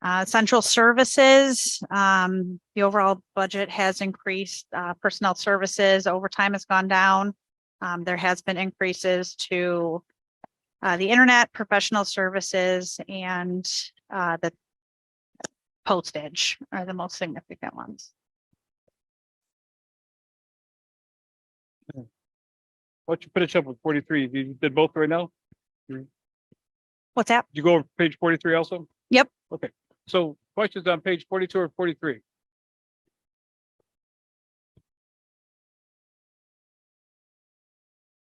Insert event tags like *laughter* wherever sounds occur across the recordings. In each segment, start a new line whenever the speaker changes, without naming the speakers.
Uh, central services, um, the overall budget has increased, uh, personnel services, overtime has gone down. Um, there has been increases to uh, the internet, professional services and, uh, the postage are the most significant ones.
Why don't you finish up with forty-three? You did both right now?
What's that?
Did you go over page forty-three also?
Yep.
Okay, so questions on page forty-two or forty-three?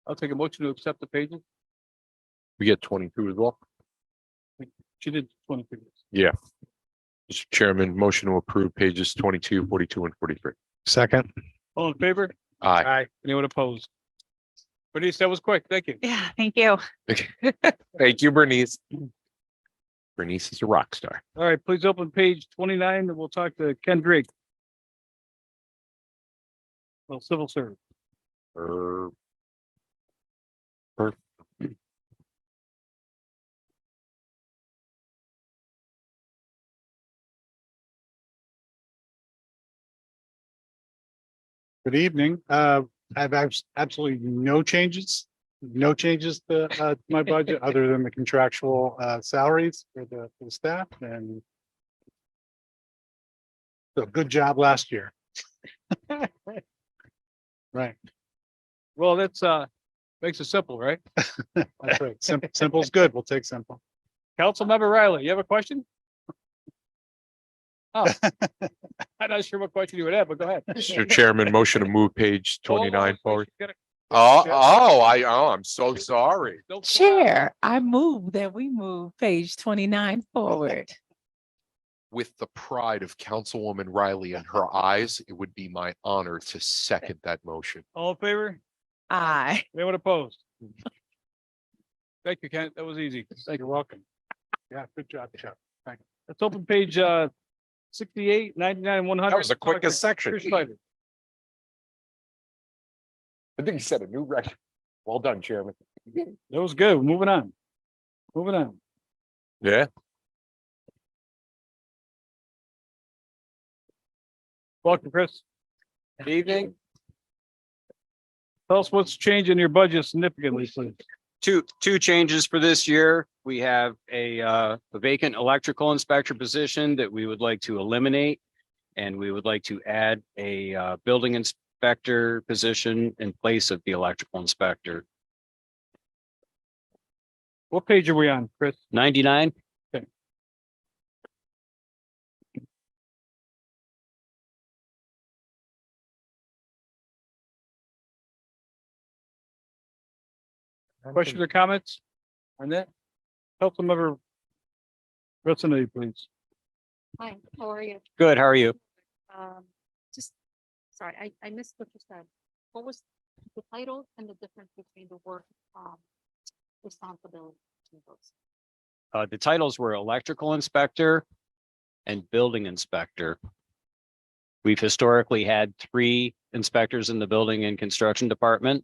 I'll take a motion to accept the pages.
We get twenty-two as well.
She did twenty-three.
Mr. Chairman, motion to approve pages 22, 42, and forty-three.
Second.
All in favor?
Aye.
Aye. Anyone opposed? Bernice, that was quick. Thank you.
Yeah, thank you.
Thank you, Bernice. Bernice is a rock star.
All right, please open page twenty-nine and we'll talk to Ken Drake. Well, civil service.
Er,
Good evening. Uh, I have abs- absolutely no changes, no changes to, uh, to my budget other than the contractual, uh, salaries for the, for the staff and so good job last year. Right,
Well, that's, uh, makes it simple, right?
that's right. Simple, simple's good. We'll take simple.
Councilmember Riley, you have a question? Oh, I'm not sure what question you would have, but go
*laughs*
ahead.
Mr. Chairman, motion to move page twenty-nine forward.
Oh, oh,
I, oh, I'm so sorry.
Chair, I move that we move page twenty-nine forward.
With the pride of Councilwoman Riley in her eyes, it would be my honor to second that motion.
All in favor?
Aye.
Anyone opposed? Thank you, Kent. That was easy. Thank you. Welcome.
Yeah, good job, Chuck.
Let's open page, uh, sixty-eight, ninety-nine, one hundred.
That was the quickest section.
Chris Snyder.
I think you set a new record. Well done, Chairman.
That was good. Moving on. Moving on.
Yeah.
Welcome, Chris.
Good evening.
Tell us what's changing your budget significantly, please.
Two, two changes for this year. We have a uh, a vacant electrical inspector position that we would like to eliminate. And we would like to add a uh, building inspector position in place of the electrical inspector.
What page are we on, Chris?
Ninety-nine,
Questions or comments on that? Councilmember Rusinity, please.
Hi, how are you?
good, how are you?
Um, just, sorry, I, I missed what you said. What was the title and the difference between the work, um, responsibility? between those?
Uh, The titles were electrical inspector and building inspector. We've historically had three inspectors in the building and construction department.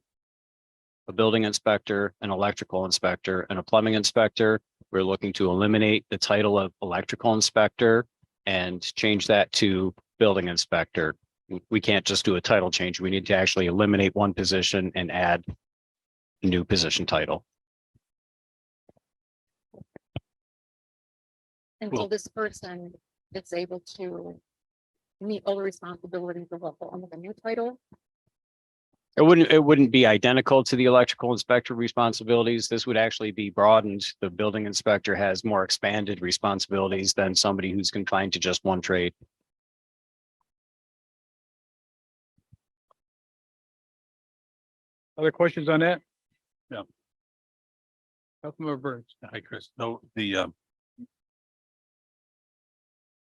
A building inspector, an electrical inspector, and a plumbing inspector. We're looking to eliminate the title of electrical inspector and change that to building inspector. We- We can't just do a title change. We need to actually eliminate one position and add a new position title.
And
Cool.
so this person is able to meet all the responsibilities of what, under the new title?
It wouldn't, it wouldn't be identical to the electrical inspector responsibilities. This would actually be broadened. The building inspector has more expanded responsibilities than somebody who's confined to just one trade.
Other questions on that? No. Councilmember Burns.
Hi, Chris. No, the, um,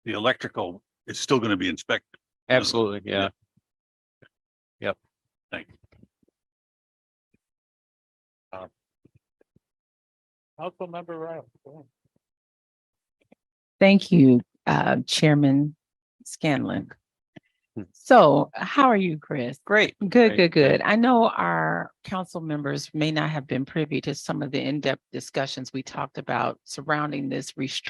the electrical is still going to be inspected.
Absolutely, yeah.
Councilmember Riley. go ahead.
Thank you, uh, Chairman Scanlon. So how are you, Chris?
Great.
Good,
Right.
good, good. I know our council members may not have been privy to some of the in-depth discussions we talked about surrounding this restructuring